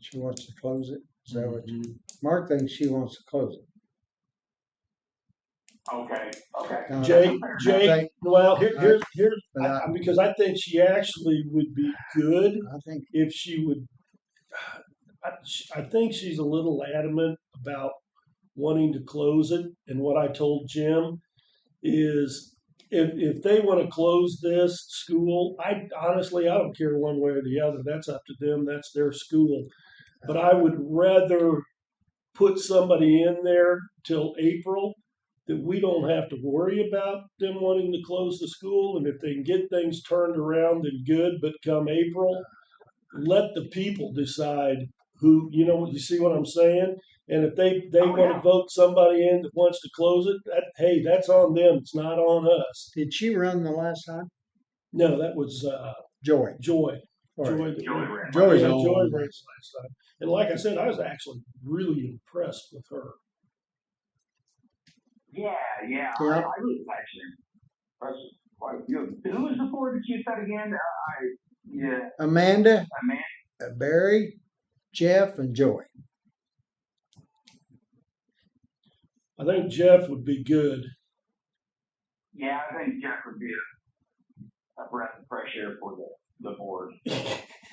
she wants to close it, is that Mm-hmm. what you, Mark thinks she wants to close it. Okay, okay. Now, Jake, I Jake, think- well, here, here's, here's, But I- I, I- because I think she actually would be good I think, if she would. I, she- I think she's a little adamant about wanting to close it. And what I told Jim is if, if they want to close this school, I honestly, I don't care one way or the other. That's up to them. That's their school. But I would rather put somebody in there till April that we don't have to worry about them wanting to close the school. And if they can get things turned around, then good. But come April, let the people decide who you know you see what i'm saying and if they they Oh, want to yeah. vote somebody in that wants to close it that, hey that's on them it's not on us did she run the last time? no that was uh Joy. joy or- joy that- Joey Ray. yeah, Joy's joy on. raised last time and like i said i was actually really impressed with her Yeah, yeah. I, Yeah. I was actually. That's, why- you, who was the four that you said again? Uh, I, yeah, Amanda, I mean, uh, Barry, Jeff, and Joy. i think jeff would be good yeah, I think Jeff would be a, a breath of fresh air for the, the board.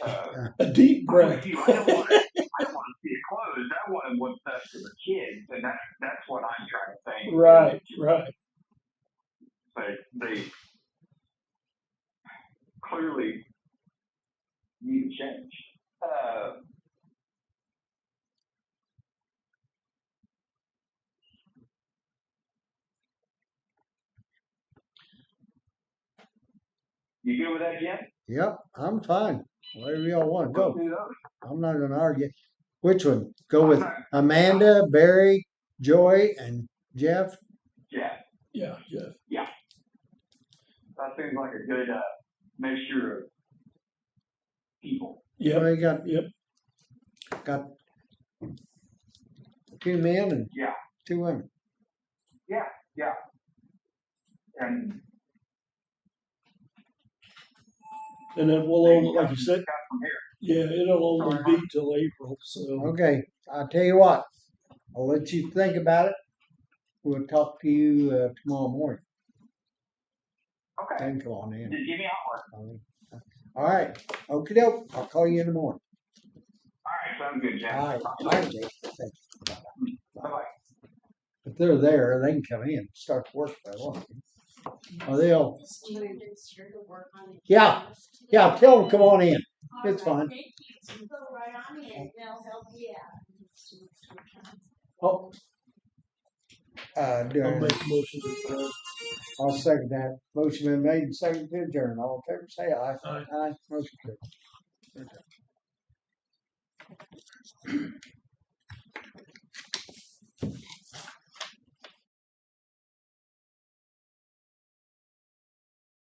Uh, a deep Right. breath I don't want to see it closed. I want what's best for the kids, and that's that's what I'm trying to think. right right Like they clearly need change. Uh, you good with that, Jim? Yep, I'm fine, whatever y'all wanna Let's go, do those. I'm not gonna argue. Which one? Go with I'm Uh-huh. not- Amanda, Barry, Joy, and Jeff? Yeah. yeah jeff That seems like a good uh, measure of people. yeah Well, you got, yep. got two men and Yeah. two women. And and then we'll only like you said got from here. yeah it'll only be till april so Okay, I'll tell you what, I'll let you think about it. We'll talk to you uh, tomorrow morning. Okay. Then come on in. Just give me an hour. All right, okey doke, I'll call you in the morning. All right, sounds good, Jack. All right, thank you. Bye-bye. If they're there, they can come in, and start to work if they want. Or they'll, Somebody that's here to work on it. Yeah, yeah, tell them, come on in. it's All fine. right, Thank you. You Go right on in, they'll help you out. Oh. Uh, do i'll I- make a motion to adjourn. I'll second that. Motion been made and seconded to adjourn. All in favor, say aye. Aye. Aye, motion carried.